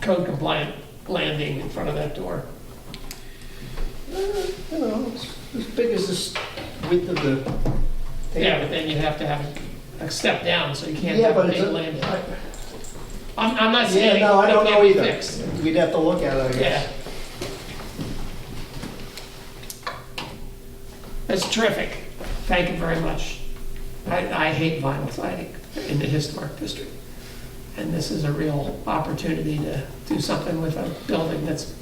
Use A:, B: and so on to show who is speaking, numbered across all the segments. A: code compliant landing in front of that door. Uh, You know, it's as big as this width of the thing. Yeah, but then you'd have to have a step down, so you can't
B: Yeah,
A: have a
B: but it's,
A: big landing.
B: a-
A: I'm, I'm not
B: I-
A: saying
B: yeah,
A: it
B: no, I don't
A: can't
B: know
A: be
B: either.
A: fixed.
B: We'd have to look at it, I
A: Yeah.
B: guess.
A: That's terrific. Thank you very much. I, I hate vinyl siding in the historic district. And this is a real opportunity to do something with a building that's,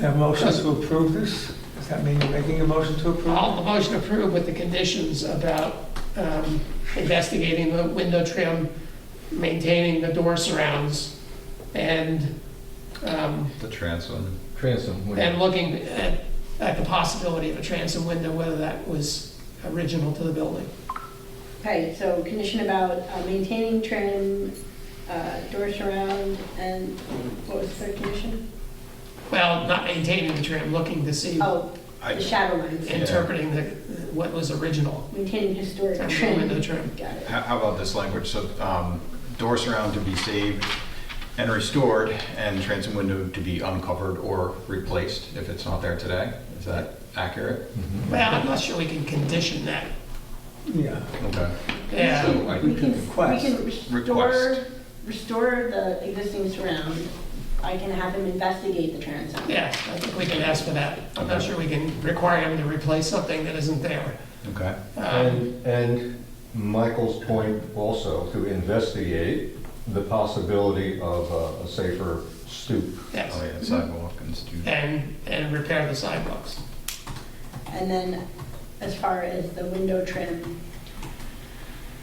C: Have motion to approve this? Does that mean you're making a motion to approve?
A: all the motion approved with the conditions about um, investigating the window trim, maintaining the door surrounds, and, um,
D: The transom.
E: Transom, would-
A: and looking at, at the possibility of a transom window, whether that was original to the building.
F: Okay, so condition about uh, maintaining trim, uh, door surround, and what was the third condition?
A: Well, not maintaining the trim, looking to see,
F: Oh,
D: I-
F: the shadow lines,
A: interpreting the, what was original,
F: maintaining historic
A: and the
F: trim.
A: window trim.
F: Got it.
D: How how about this language? So um, door surround to be saved and restored, and transom window to be uncovered or replaced if it's not there today. Is that accurate?
C: Mm-hmm.
A: Well, I'm not sure we can condition that,
C: Yeah.
D: Okay.
A: yeah.
D: So I-
F: We can, we
C: request-
F: can restore,
D: request.
F: restore the existing surround. I can have him investigate the transom.
A: Yeah, I think we can ask for that. I'm not sure we can require them to replace something that isn't there.
D: Okay.
A: Um,
E: and, and Michael's point also, to investigate the possibility of a- a safer stoop.
D: Oh,
A: Yes,
D: yeah, sidewalk and stu-
A: and, and repair the sidewalks.
F: And then as far as the window trim,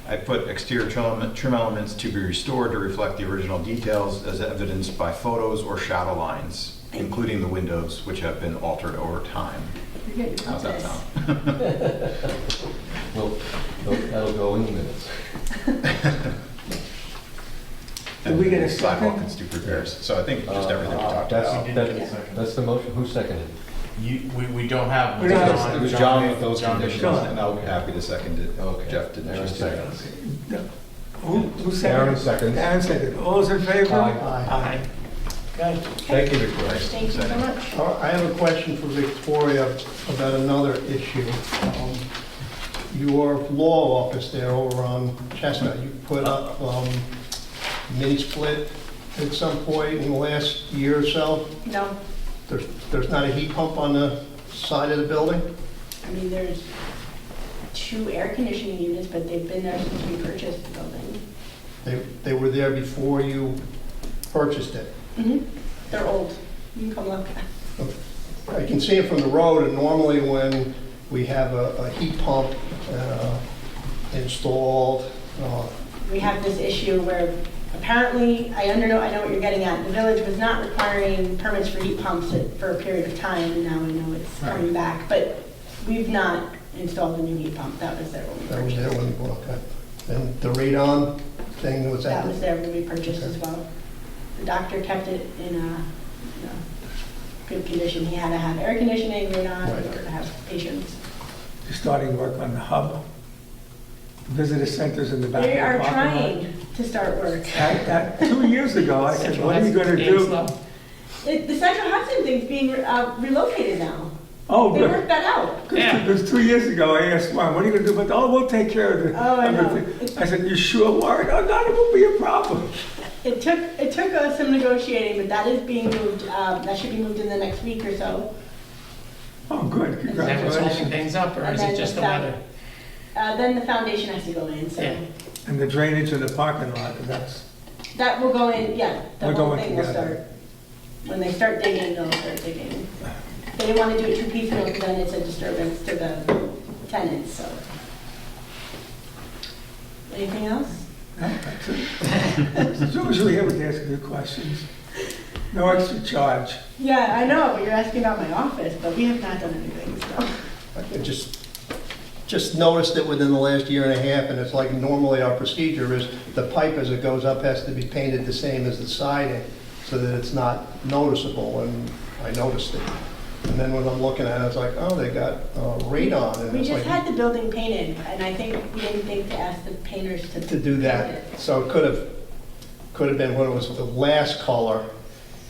D: I put exterior trim element- trim elements to be restored to reflect the original details as evidenced by photos or shadow lines, including the windows, which have been altered over time.
F: you're good, you
D: How's that
F: got this.
D: sound?
E: Well, that'll that'll go in the minutes.
C: Did we get a
D: Sidewalk
C: second?
D: and stoop repairs. So I think just
E: Uh,
D: everything we talked
E: that's-
D: about.
G: We did
E: that-
G: get a second.
E: That's the motion, who seconded?
G: You, we, we don't have.
C: We don't have-
G: John-
D: It was John with
G: John-
D: those
G: John did
D: conditions,
C: John.
D: and I'll be happy to second it.
E: Okay.
D: Oh, Jeff didn't.
E: Aaron
D: just second.
E: seconds.
C: Who, who
E: Aaron
C: seconded?
E: seconds.
C: Aaron seconded. All those in favor?
E: Aye.
B: Uh-huh.
A: I,
B: Okay.
E: Thank you, Victoria.
F: Thank you so much.
B: All right, Uh, I have a question for Victoria about another issue. Um, Your law office there over on Chestnut, you put up um, mini split at some point in the last year or so.
F: No,
B: There's, there's not a heat pump on the side of the building?
F: I mean, there's two air conditioning units, but they've been there since we purchased the building.
B: They, they were there before you purchased it. Mm-hmm.
F: They're old. You can come look.
B: I can see it from the road, and normally when we have a, a heat pump uh, installed, uh,
F: We have this issue where apparently, I under, I know what you're getting at. The village was not requiring permits for heat pumps at- for a period of time. and Now I know it's coming back, but we've not installed a new heat pump. That was there when we
B: That was
F: purchased.
B: there when, well, okay. And the radon thing was
F: That
B: that?
F: was there when we purchased as well. The doctor kept it in a, you know, good condition. He had to have air conditioning, or not,
B: Right.
F: in order to have patients.
C: You're Starting work on the hub, visitor centers in the back. of the
F: We are
C: parking lot.
F: trying to start work.
C: I- I- Two years ago, I said,
A: Central
C: what are you gonna
A: Hudson,
C: do?
A: Ameslow.
F: The the Central Hudson thing's being uh, relocated now.
C: Oh,
F: They
C: good.
F: worked that out.
A: Yeah.
C: It was two years ago, I asked Warren, what are you gonna do? But, oh, we'll take care of the.
F: Oh, I know.
C: everything." I said, you sure, Warren? Oh, no, it won't be a problem.
F: It took, it took us some negotiating, but that is being moved, um, that should be moved in the next week or so.
C: Oh, good,
A: Is that what's holding
C: congratulations.
A: things up, or
F: And
A: is
F: then
A: it just the
F: found-
A: weather?
F: Uh, Then the foundation has to go in, so
A: Yeah.
C: And the drainage in the parking lot, that's,
F: that will go in, yeah, the
C: We're
F: whole
C: going
F: thing will start.
C: together.
F: When they start digging, they'll start digging. They didn't want to do it too piecemeal, because then it's a disturbance to the tenants, so. Anything else?
C: no, that's it. As long as you're here, we can ask you questions. No extra charge.
F: Yeah, I know, but you're asking about my office, but we have not done anything, so.
B: I just, just noticed it within the last year and a half, and it's like normally our procedure is the pipe as it goes up has to be painted the same as the siding so that it's not noticeable, and I noticed it. And then when I'm looking at it, it's like, oh, they got uh, radon, and
F: We
B: it's
F: just
B: like,
F: had the building painted, and I think we didn't think to ask the painters to.
B: to do
F: paint it.
B: that. So it could have, could have been when it was the last color